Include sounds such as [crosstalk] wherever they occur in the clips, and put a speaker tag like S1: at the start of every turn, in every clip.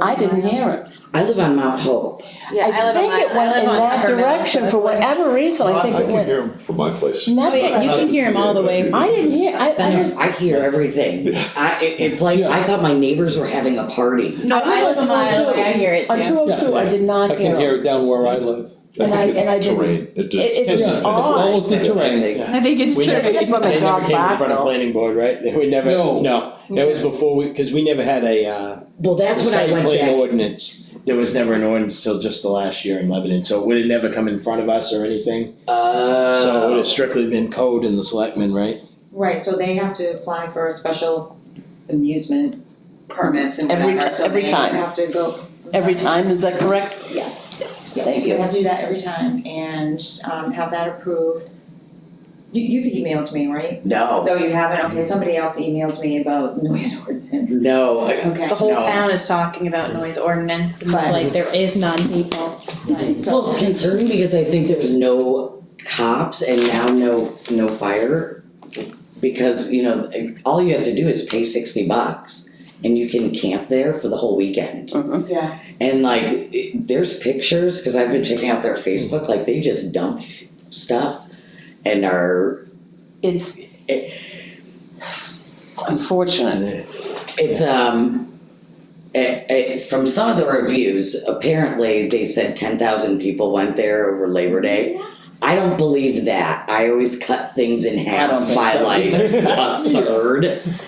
S1: I didn't hear it.
S2: I live on Mount Hope.
S3: Yeah, I
S1: I
S3: [laughs] live on
S1: think
S3: my,
S1: it
S3: I
S1: went
S3: live
S1: in
S3: on
S1: that
S3: Peppermint, so
S1: direction for
S3: it's like-
S1: whatever reason, I think
S4: I
S1: it
S4: can
S1: went.
S4: hear him from my place.
S3: Oh, yeah, you
S1: Never,
S3: can hear him all the way.
S1: I didn't hear, I, I didn't,
S2: I hear everything. I, it- it's like, I thought my neighbors were having a party.
S5: No, I live a mile away, I hear it
S1: on two
S5: too.
S1: oh two, I did
S6: I
S1: not
S6: can
S1: hear
S6: hear
S1: it.
S6: it down where I live.
S1: and I-
S4: think
S1: and I
S4: it's
S1: didn't-
S4: terrain, it just.
S1: it- it's
S6: just
S4: it's
S6: As
S1: odd.
S6: well as the terrain.
S2: Everything.
S7: I think it's
S8: We never,
S7: true.
S1: It's when
S8: they
S1: they
S8: never
S1: drive
S8: came in
S1: back,
S8: front of
S1: though.
S8: planning board, right? [laughs] We never,
S6: No.
S8: no, that was before we, cause we never had a, uh,
S2: Well, that's when
S8: site
S2: I went
S8: plan
S2: back.
S8: ordinance. There was never an ordinance till just the last year in Lebanon, so it would have never come in front of us or anything.
S2: Uh,
S8: So it would have strictly been code and the selectmen, right?
S3: Right, so they have to apply for a special amusement permits and
S1: Every
S3: whatever,
S1: ti-
S3: so
S1: every
S3: they
S1: time.
S3: have to go.
S1: Every time, is that correct?
S3: Yes,
S1: Thank
S3: yes, so
S1: you.
S3: they have to do that every time and um have that approved. You you've emailed me, right?
S2: No,
S3: No, you haven't, okay, somebody else emailed me about noise ordinance,
S2: no.
S3: okay.
S5: The whole
S2: No.
S5: town is talking about noise ordinance and it's
S3: But-
S5: like, there is none, people.
S3: Right,
S2: Well, it's
S3: so,
S2: concerning because I think there's no cops and now no, no fire. Because, you know, all you have to do is pay sixty bucks and you can camp there for the whole weekend.
S3: yeah,
S2: And like, it- there's pictures because I've been checking out their Facebook. Like they just dump stuff and are.
S1: It's unfortunate.
S2: It's um, eh, eh, from some of the reviews, apparently they said ten thousand people went there over Labor Day. I don't believe that. I always cut things in half
S6: don't think
S2: by
S6: so
S2: like a third.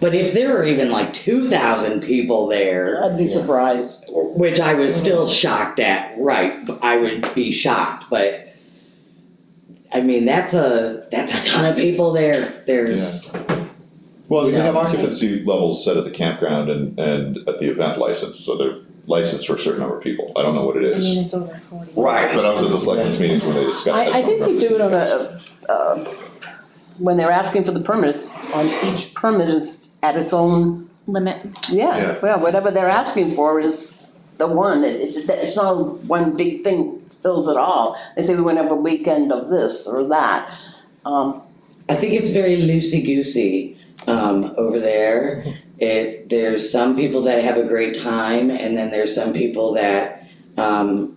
S2: But if there were even like two thousand people there,
S1: I'd be
S8: Yeah.
S1: surprised.
S2: which I was still shocked at. Right, I would be shocked, but I mean that's a that's a ton of people there. There's
S4: Well, they
S2: Yeah.
S4: have occupancy levels set at the campground and, and at the event license, so they're licensed for a certain number of people. I don't know what it
S5: I mean,
S4: is.
S5: it's over forty.
S2: right,
S4: But I was at the selectmen's meetings when they discussed.
S1: I, I
S4: just don't
S1: think they
S4: remember
S1: do it
S4: the
S1: on a,
S4: details.
S1: uh, when they're asking for the permits, on each permit is at its own,
S5: Limit.
S1: yeah,
S4: Yeah.
S1: well, whatever they're asking for is the one, it, it's, it's not one big thing fills it all. They say we're gonna have a weekend of this or that, um,
S2: I think it's very loosey goosey um, over there. It there's some people that have a great time, and then there's some people that um,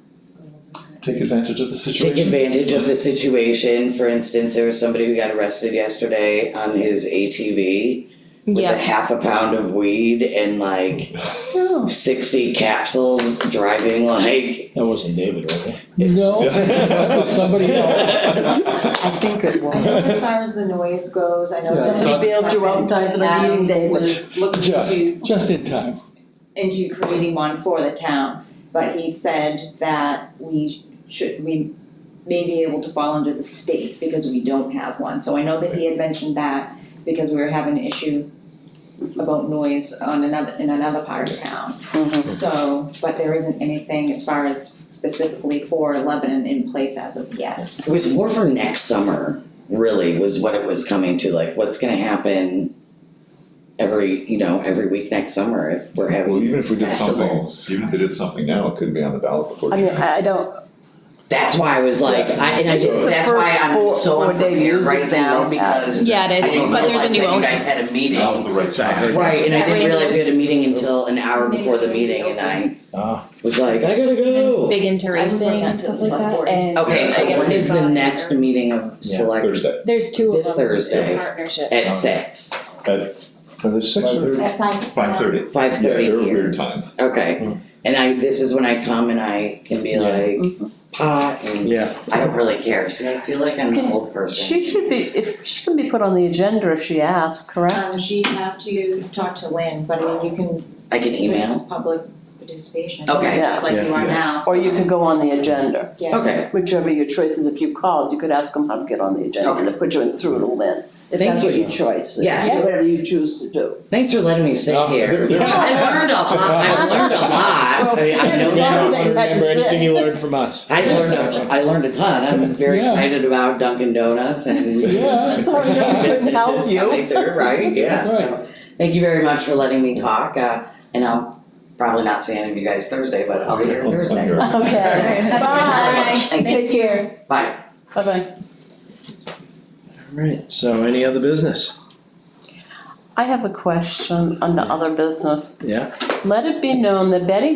S4: Take advantage of the
S2: take
S4: situation.
S2: advantage of the situation. For instance, there was somebody who got arrested yesterday on his ATV with a
S5: Yeah,
S2: half a pound of weed and like. 60 capsules driving like
S8: That wasn't David, was it?
S1: [laughs]
S4: [laughs]
S6: No, that was somebody else.
S1: I think it
S3: I know
S1: was.
S3: as far as the noise goes, I know
S6: Yeah,
S3: that.
S6: Somebody
S1: bailed you out in time for the meeting,
S3: Adams
S1: David.
S3: was looking to
S6: Just, just in time.
S3: into creating one for the town, but he said that we should, we may be able to fall under the state because we don't have one, so I know that he had mentioned that because we were having an issue about noise on another, in another part of town.
S1: Mhm.
S3: So, but there isn't anything as far as specifically for Lebanon in place as of yet.
S2: it was more for next summer really was what it was coming to like what's going to happen every you know every week next summer if we're having
S4: Well, even if we did something,
S2: festivals.
S4: even if they did something now, it couldn't be on the ballot before.
S1: I mean,
S4: January.
S1: I I don't,
S2: that's why i was like i and i
S1: This is the
S2: that's why
S1: first
S2: i'm
S1: four-
S2: so
S1: four-day
S2: unprepared
S1: music
S2: right now
S1: thing that-
S2: because
S5: yeah, it
S2: I didn't
S5: is, but there's a
S2: realize
S5: new
S2: that you
S5: owner.
S2: guys had a meeting
S8: Now's the right time.
S2: right and i
S5: Yeah,
S2: didn't
S5: we-
S2: realize we had a meeting until an hour before the meeting and i
S8: Ah.
S2: was like i gotta go
S5: Big into
S3: I would bring
S5: racing
S3: that
S5: and
S3: to
S5: stuff like
S3: the select
S5: that
S3: board.
S5: and.
S2: okay so
S5: I guess
S2: when
S5: they
S2: is the
S5: thought-
S2: next meeting of
S8: Yeah.
S2: select
S4: Thursday,
S5: There's two of them.
S2: This Thursday.
S5: Partnership.
S2: at six
S4: Now, there's six or
S3: At five.
S4: five thirty.
S2: Five
S4: Yeah,
S2: thirty
S4: they're a
S2: here.
S4: weird time.
S2: Okay.
S8: Hmm.
S2: And I, this is when I come and I can be
S8: Yeah.
S1: Mm-hmm.
S2: like, pot, and [laughs]
S8: Yeah.
S2: I don't really care, see, I feel like I'm an
S1: Can-
S2: old person.
S1: she should be, if, she can be put on the agenda if she asks, correct?
S3: Um, she'd have to talk to Lynn, but I mean, you can
S2: I can email.
S3: Public participation.
S2: Okay.
S3: Just like you are
S4: Yeah.
S3: now.
S1: Or you can go on the agenda.
S3: Yeah.
S2: Okay,
S1: whichever your choice is, if you called, you could ask them how to get on the agenda, and they put you in through to Lynn. If
S2: Thank
S1: that's what
S2: you.
S1: your choice is,
S2: Yeah.
S1: yeah, whatever you choose to do.
S2: thanks for letting me sit
S8: No,
S2: here.
S4: they're- they're-
S2: I learned a lot, I learned a lot. I mean, I
S1: Well,
S2: know
S1: Sorry that
S2: now.
S1: you had to
S8: remember anything
S1: sit.
S8: [laughs] you learned from us.
S2: I learned, a- I learned a ton, I'm very
S6: Yeah.
S2: excited about Dunkin' Donuts and.
S6: Yeah.
S1: [laughs] Sorry that we couldn't help
S2: businesses
S1: you.
S2: coming through,
S1: [laughs]
S2: right, yeah, so, thank you very much for letting me talk, uh, and I'll probably not see any of you guys Thursday, but I'll be here
S4: Well, I'm
S2: Thursday.
S4: here.
S1: Okay,
S2: Bye.
S1: bye, take care,
S2: Bye.
S1: bye-bye.
S8: Alright, so any other business?
S1: I have a question on the other business.
S8: Yeah.
S1: Let it be known that Betty